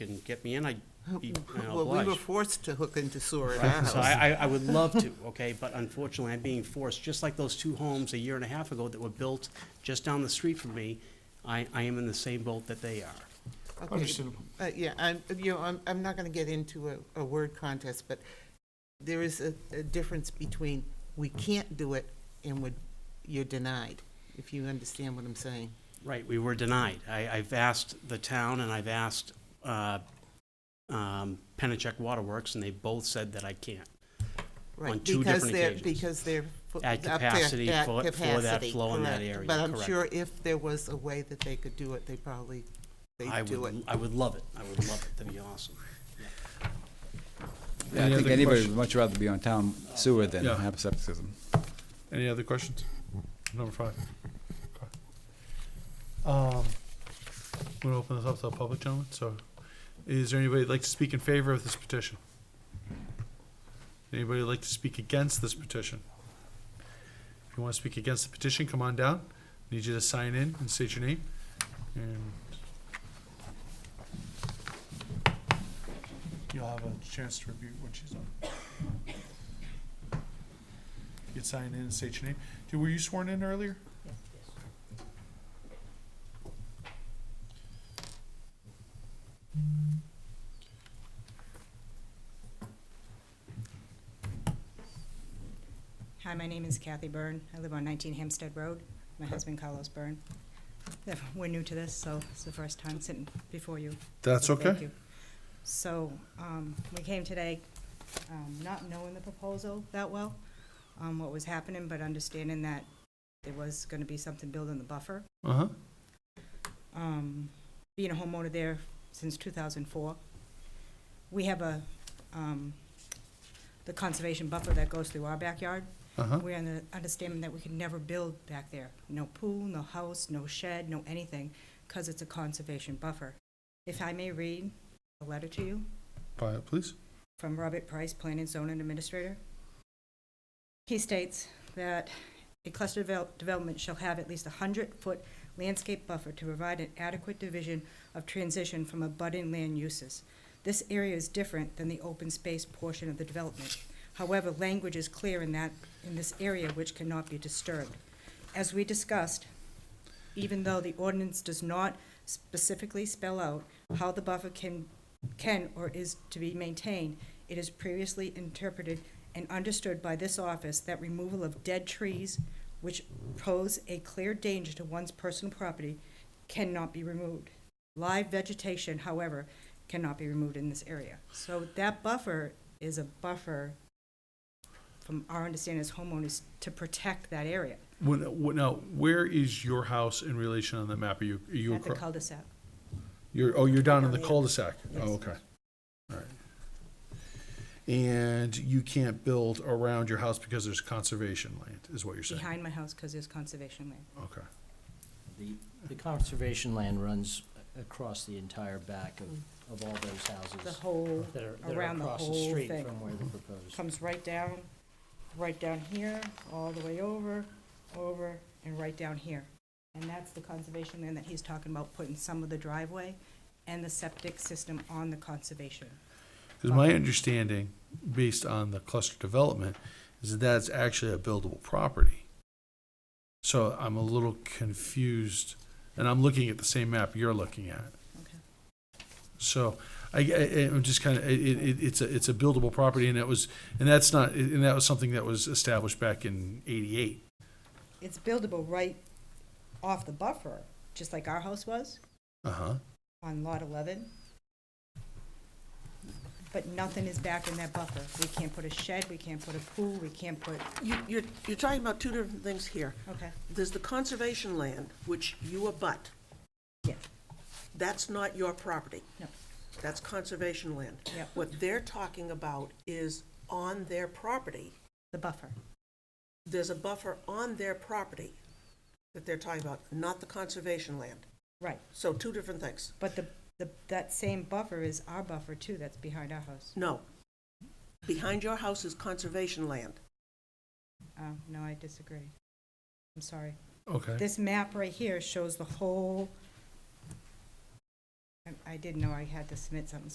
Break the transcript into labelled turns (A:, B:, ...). A: can get me in, I'd be you know,
B: Oh, Well, we were
A: obliged.
B: forced to hook into sewer at our
A: Right, So
B: house.
A: I, I, I would love to, okay, but unfortunately, I'm being forced, just like those two homes a year and a half ago that were built just down the street from me, I, I am in the same boat that they are.
B: Okay.
C: Understandable.
B: Uh, yeah, I'm, you know, I'm, I'm not gonna get into a, a word contest, but there is a, a difference between we can't do it and would, you're denied, if you understand what I'm saying.
A: Right, we were denied. I, I've asked the town and I've asked, uh, um, Pennachuck Waterworks, and they both said that I can't.
B: Right,
A: On two
B: because
A: different
B: they're-
A: occasions.
B: Because they're. fo-
A: At
B: up there,
A: capacity
B: at
A: for- for that
B: capacity,
A: flow in that
B: correct.
A: area,
B: But I'm
A: correct.
B: sure if there was a way that they could do it, they probably,
A: I
B: they'd do it.
A: would, I would love it. I would love it. That'd be awesome.
D: Yeah, I
C: Any
D: think
C: other
D: anybody would
C: question-
D: much rather be on town sewer than
C: Yeah.
D: have septicism.
C: Any other questions? Number five. Um, we'll open this up to the public, gentlemen, so is there anybody that'd like to speak in favor of this petition? Anybody that'd like to speak against this petition? If you wanna speak against the petition, come on down, need you to sign in and state your name, and you'll have a chance to review what she's done. You'd sign in and state your name. Dude, were you sworn in earlier?
E: Hi, my name is Kathy Byrne. I live on 19 Hampstead Road. My husband Carlos Byrne. Yeah, We're new to this, so it's the first time sitting before you.
C: That's
E: so thank
C: okay.
E: you. So, um, we came today, um, not knowing the proposal that well, um, what was happening, but understanding that there was gonna be something built in the buffer.
C: Uh-huh.
E: Um, being a homeowner there since 2004, we have a, um, the conservation buffer that goes through our backyard.
C: Uh-huh.
E: We're in the understanding that we could never build back there. No pool, no house, no shed, no anything, because it's a conservation buffer. If I may read a letter to you
C: Quiet, please.
E: from Robert Price, Planning Zoning Administrator. He states that a cluster devel- development shall have at least a hundred-foot landscape buffer to provide an adequate division of transition from abutting land uses. This area is different than the open space portion of the development. However, language is clear in that, in this area which cannot be disturbed. As we discussed, even though the ordinance does not specifically spell out how the buffer can, can or is to be maintained, it is previously interpreted and understood by this office that removal of dead trees which pose a clear danger to one's personal property cannot be removed. Live vegetation, however, cannot be removed in this area. So that buffer is a buffer, from our understanding as homeowners, to protect that area
C: When, when, now, where is your house in relation on the map? Are you, are you,
E: at the
C: acro-
E: cul-de-sac.
C: you're, oh, you're down in the
E: Yeah.
C: cul-de-sac?
E: Yes.
C: Oh, okay. All right. And you can't build around your house because there's conservation land, is what you're saying?
E: behind my house because there's conservation land.
C: Okay.
F: The, the conservation land runs a- across the entire back of, of all those houses.
E: The whole,
F: that are- that are
E: around the
F: across
E: whole
F: street
E: thing.
F: From where the proposed.
E: comes right down, right down here, all the way over, over, and right down here. And that's the conservation land that he's talking about, putting some of the driveway and the septic system on the conservation.
C: Because my understanding, based on the cluster development, is that that's actually a buildable property. So I'm a little confused, and I'm looking at the same map you're looking at.
E: Okay.
C: So I, I, I'm just kind of, it, it, it's a, it's a buildable property and it was, and that's not, and that was something that was established back in eighty-eight.
E: It's buildable right off the buffer, just like our house was
C: Uh-huh.
E: on lot eleven. But nothing is back in that buffer. We can't put a shed, we can't put a pool, we can't put,
G: You, you're, you're talking about two different things here.
E: okay,
G: There's the conservation land, which you abut.
E: yeah,
G: That's not your property.
E: no,
G: That's conservation land.
E: Yep.
G: What they're talking about is on their property,
E: the buffer.
G: there's a buffer on their property that they're talking about, not the conservation land.
E: Right,
G: So two different things.
E: but the, the, that same buffer is our buffer too, that's behind our house.
G: No. Behind your house is conservation land.
E: Oh, no, I disagree. I'm sorry.
C: Okay.
E: This map right here shows the whole I- I didn't know I had to submit something,